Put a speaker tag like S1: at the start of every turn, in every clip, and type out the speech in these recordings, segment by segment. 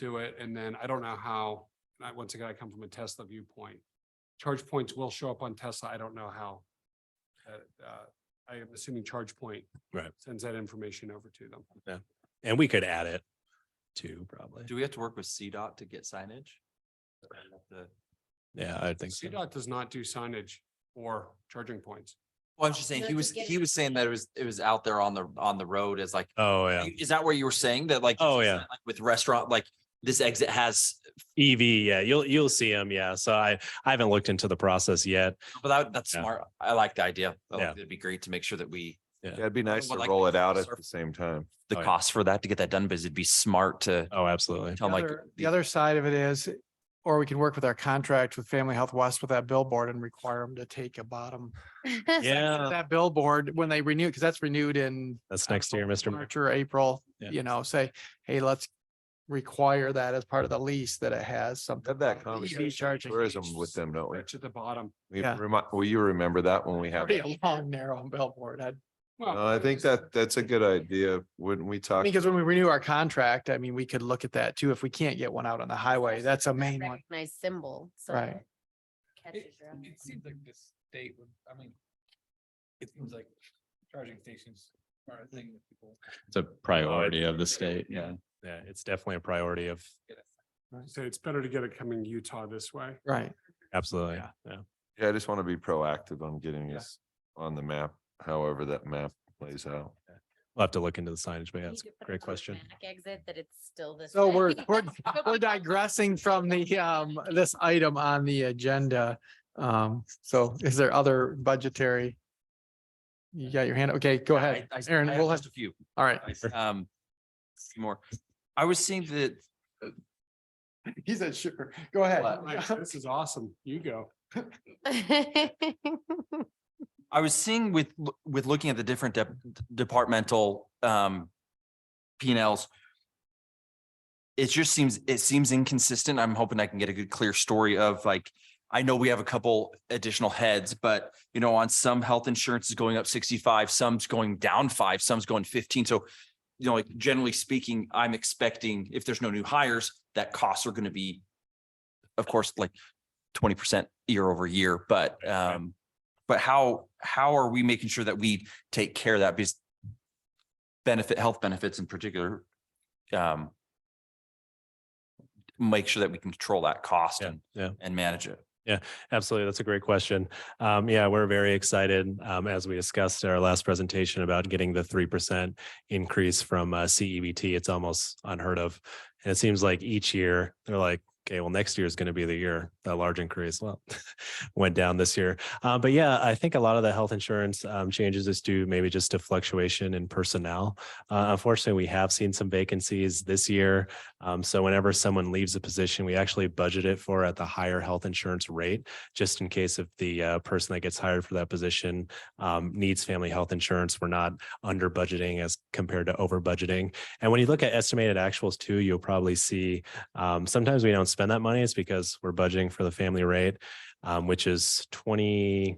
S1: do it. And then I don't know how, and I, once again, I come from a Tesla viewpoint. Charge points will show up on Tesla. I don't know how. uh, uh, I am assuming charge point.
S2: Right.
S1: Sends that information over to them.
S2: And we could add it too, probably.
S3: Do we have to work with CDOT to get signage? The-
S2: Yeah, I think so.
S1: CDOT does not do signage or charging points.
S3: Well, I'm just saying,
S4: No,
S3: he
S4: to
S3: was,
S4: get
S3: he
S4: it-
S3: was saying that it was, it was out there on the, on the road as like,
S2: Oh, yeah.
S3: is that where you were saying that like?
S2: Oh, yeah.
S3: like With restaurant, like this exit has,
S2: EV, E yeah, you'll, you'll see them. Yeah. So I, I haven't looked into the process yet.
S3: but that, that's
S2: Yeah.
S3: smart. I like the idea. I
S2: Yeah.
S3: like- It'd be great to make sure that we,
S5: Yeah, it'd be nice
S3: would
S5: to
S3: like
S5: roll
S3: to
S5: it out at
S3: surf-
S5: the same time.
S3: the
S2: Oh, yeah.
S3: cost for that to get that done, because it'd be smart to
S2: Oh, absolutely.
S3: tell
S6: The
S3: like.
S6: other- The other side of it is, or we can work with our contract with Family Health West with that billboard and require them to take a bottom.
S2: Yeah.
S6: That billboard, when they renew, because that's renewed in
S2: That's next year, Mr. Mayor.
S6: March or April,
S2: Yeah.
S6: you know, say, hey, let's require that as part of the lease that it has something.
S5: Had that
S6: about EV
S5: conversation, on
S6: charging.
S5: tourism with them, don't we?
S1: That's at the bottom.
S5: We
S6: Yeah.
S5: remind, will you remember that when we have?
S6: Pretty a long, narrow billboard. I
S1: Well,
S5: No, I think that that's a good idea. Wouldn't we talk?
S6: Because when we renew our contract, I mean, we could look at that too. If we can't get one out on the highway, that's a main one.
S4: Nice symbol. so
S6: Right.
S4: it catches your eye.
S7: It seems like the state would, I mean, it seems like charging stations are a thing that people.
S8: It's a priority of the state, yeah.
S2: Yeah, it's definitely a priority of,
S1: So it's better to get it coming Utah this way.
S6: Right.
S2: absolutely. Yeah.
S5: Yeah, I just want to be proactive on getting
S2: Yeah.
S5: us on the map, however that map plays out.
S2: We'll have to look into the signage, but yeah,
S4: Need
S2: that's
S4: to
S2: a
S4: put
S2: great
S4: another
S2: question.
S4: back Exit that it's still this.
S6: So
S4: way.
S6: we're, we're, we're digressing from the, um, this item on the agenda. Um, so is there other budgetary? You got your hand? Okay, go
S3: Yeah, I-
S6: ahead.
S3: I s-
S6: Aaron,
S3: I have
S6: we'll have,
S3: just A few.
S6: all right.
S3: I s- Um, few more. I was saying that
S6: He said, sure, go ahead.
S1: Like, This is awesome. You go.
S3: I was seeing with, l- with looking at the different dep- departmental, um, P and Ls. It just seems, it seems inconsistent. I'm hoping I can get a good, clear story of like, I know we have a couple additional heads, but you know, on some health insurance is going up sixty-five, some's going down five, some's going fifteen. So, you know, like generally speaking, I'm expecting if there's no new hires, that costs are going to be, of course, like twenty percent year over year, but,
S2: right.
S3: um, but how, how are we making sure that we take care of that? Because benefit, health benefits in particular, um, make sure that we can control that cost
S2: Yeah.
S3: and,
S2: Yeah.
S3: and manage it.
S2: Absolutely. That's a great question. Um, yeah, we're very excited, um, as we discussed at our last presentation about getting the 3% increase from uh, CEBT. It's almost unheard of. And it seems like each year they're like, okay, well, next year is going to be the year that large increase. Well, went down this year. Uh, but yeah, I think a lot of the health insurance um, changes is due maybe just to fluctuation in personnel. Uh, unfortunately, we have seen some vacancies this year. Um, so whenever someone leaves a position, we actually budget it for at the higher health insurance rate just in case if the uh, person that gets hired for that position um, needs family health insurance, we're not under budgeting as compared to over budgeting. And when you look at estimated actuals too, you'll probably see um, sometimes we don't spend that money. It's because we're budgeting for the family rate, um, which is 20.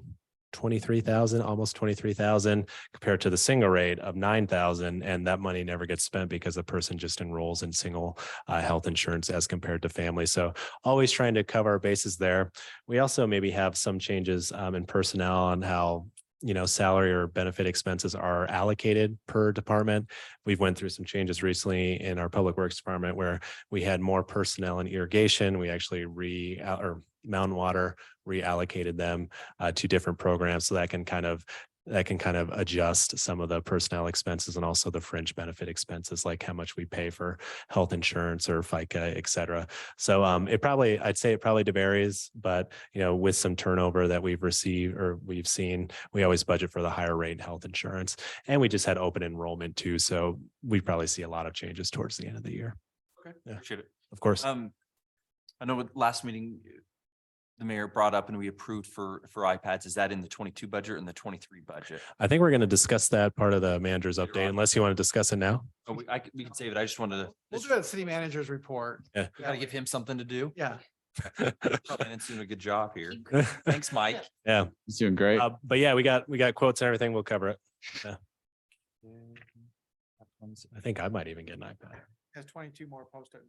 S2: 23,000 almost 23,000 compared to the single rate of 9,000 and that money never gets spent because the person just enrolls in single uh, health insurance as compared to family so always trying to cover our bases there we also maybe have some changes um, in personnel on how you know salary or benefit expenses are allocated per department we've went through some changes recently in our public works department where we had more personnel in irrigation we actually re uh, or mountain water reallocated them uh, to different programs so that can kind of that can kind of adjust some of the personnel expenses and also the fringe benefit expenses like how much we pay for health insurance or fica et cetera so um, it probably, I'd say it probably varies, but you know, with some turnover that we've received or we've seen, we always budget for the higher rate in health insurance. And we just had open enrollment too, so we probably see a lot of changes towards the end of the year. Yeah.
S3: Appreciate it.
S2: Of course,
S3: Um, I know at last meeting, the mayor brought up and we approved for, for iPads. Is that in the twenty-two budget and the twenty-three budget?
S2: I think we're going to discuss that part of the manager's
S3: Later
S2: update,
S3: on.
S2: unless you want to discuss it now.
S3: Oh, we, I, c- we can save it. I just wanted to,
S6: We'll
S3: this-
S6: do that city manager's report.
S2: Yeah.
S3: we gotta give him something to do.
S6: Yeah.
S3: And it's doing a good job here.
S4: Keep
S3: Thanks, Mike.
S8: He's doing great.
S2: Uh, But yeah, we got, we got quotes and everything. We'll cover it. Yeah. I think I might even get an iPad.
S6: has twenty-two more posted.